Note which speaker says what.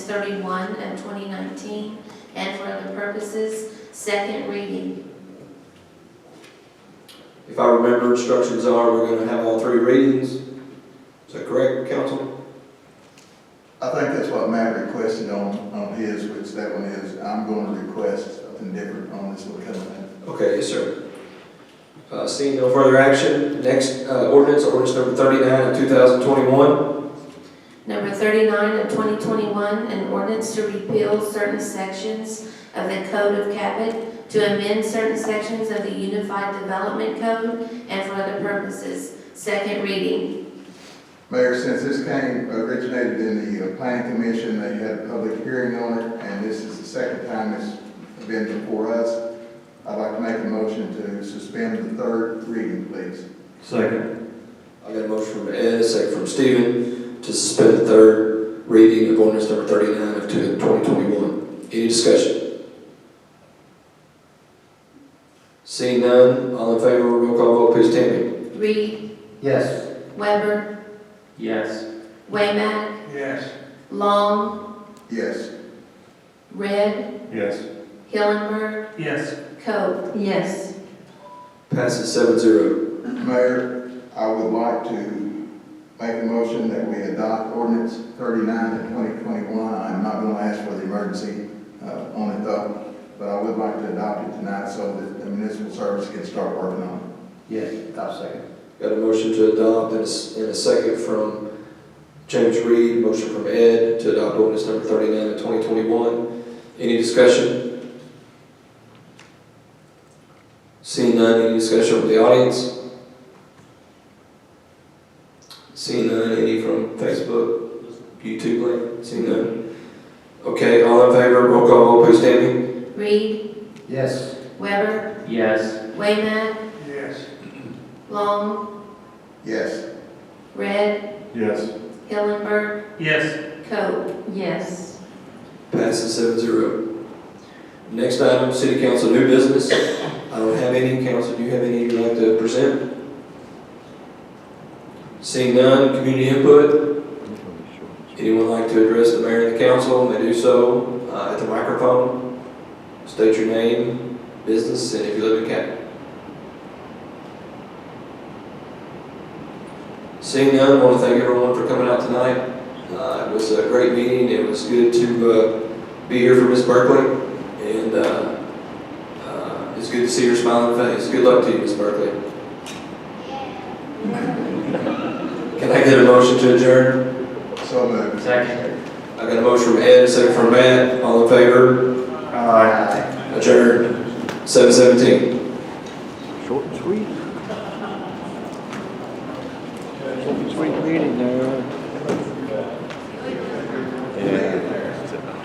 Speaker 1: thirty-one of twenty nineteen, and for other purposes, second reading.
Speaker 2: If I remember, instructions are we're going to have all three readings. Is that correct, council?
Speaker 3: I think that's what Matt requested on, on his, which that one is, I'm going to request something different on this one coming up.
Speaker 2: Okay, yes, sir. Uh, Seeing no further action, next uh, ordinance, ordinance number 39 of 2021.
Speaker 1: Number thirty-nine of twenty twenty-one, an ordinance to repeal certain sections of the Code of Cabot, to amend certain sections of the Unified Development Code, and for other purposes, second reading.
Speaker 3: Mayor, since this came, originated in the uh, planning commission, they had a public hearing on it, and this is the second time it's been before us. I'd like to make a motion to suspend the third reading, please.
Speaker 4: Second.
Speaker 2: I got a motion from Ed, a second from Stephen, to suspend the third reading of ordinance number 39 of 2021. Any discussion? Seeing none, all in favor, roll call vote, please, Tammy.
Speaker 1: Reed,
Speaker 4: Yes.
Speaker 1: Weber,
Speaker 4: Yes.
Speaker 1: Wayman,
Speaker 3: Yes.
Speaker 1: Long,
Speaker 3: Yes.
Speaker 1: Red,
Speaker 4: Yes.
Speaker 1: Hillenberg,
Speaker 4: Yes.
Speaker 1: Coe.
Speaker 5: Yes,
Speaker 2: Passes seven zero.
Speaker 3: Mayor, I would like to make a motion that we adopt ordinance thirty-nine to twenty twenty-one. I'm not going to ask for the emergency, uh, on it though, but I would like to adopt it tonight so that the municipal service can start working on it.
Speaker 4: Yes. I'll second.
Speaker 2: Got a motion to adopt and a s- and a second from James Reed, motion from Ed to adopt ordinance number thirty-nine of twenty twenty-one. Any discussion? Seeing none, any discussion from the audience? Seeing none, any from Facebook, YouTube, Lane? seeing none? Okay, all in favor, roll call, vote, please, Tammy.
Speaker 1: Reed,
Speaker 4: Yes.
Speaker 1: Weber,
Speaker 4: Yes.
Speaker 1: Wayman,
Speaker 3: Yes.
Speaker 1: Long,
Speaker 3: Yes.
Speaker 1: Red,
Speaker 4: Yes.
Speaker 1: Hillenberg,
Speaker 4: Yes.
Speaker 1: Coe.
Speaker 5: yes,
Speaker 2: Passes seven zero. Next item, city council new business. I don't have any. Council, do you have any you'd like to present? Seeing none, community input. Anyone like to address the mayor and the council, may do so uh, at the microphone. State your name, business, and if you live in Canton. Seeing none, I want to thank everyone for coming out tonight. Uh, It was a great meeting, it was good to uh, be here for Ms. Berkeley, and uh, uh, it's good to see your smiling face. Good luck to you, Ms. Berkeley. Can I get a motion to adjourn?
Speaker 3: So moved.
Speaker 4: Second.
Speaker 2: I got a motion from Ed, a second from Matt, all in favor?
Speaker 4: Aye.
Speaker 2: Adjourn, seven seventeen.
Speaker 6: Short and sweet. Short and sweet meeting there.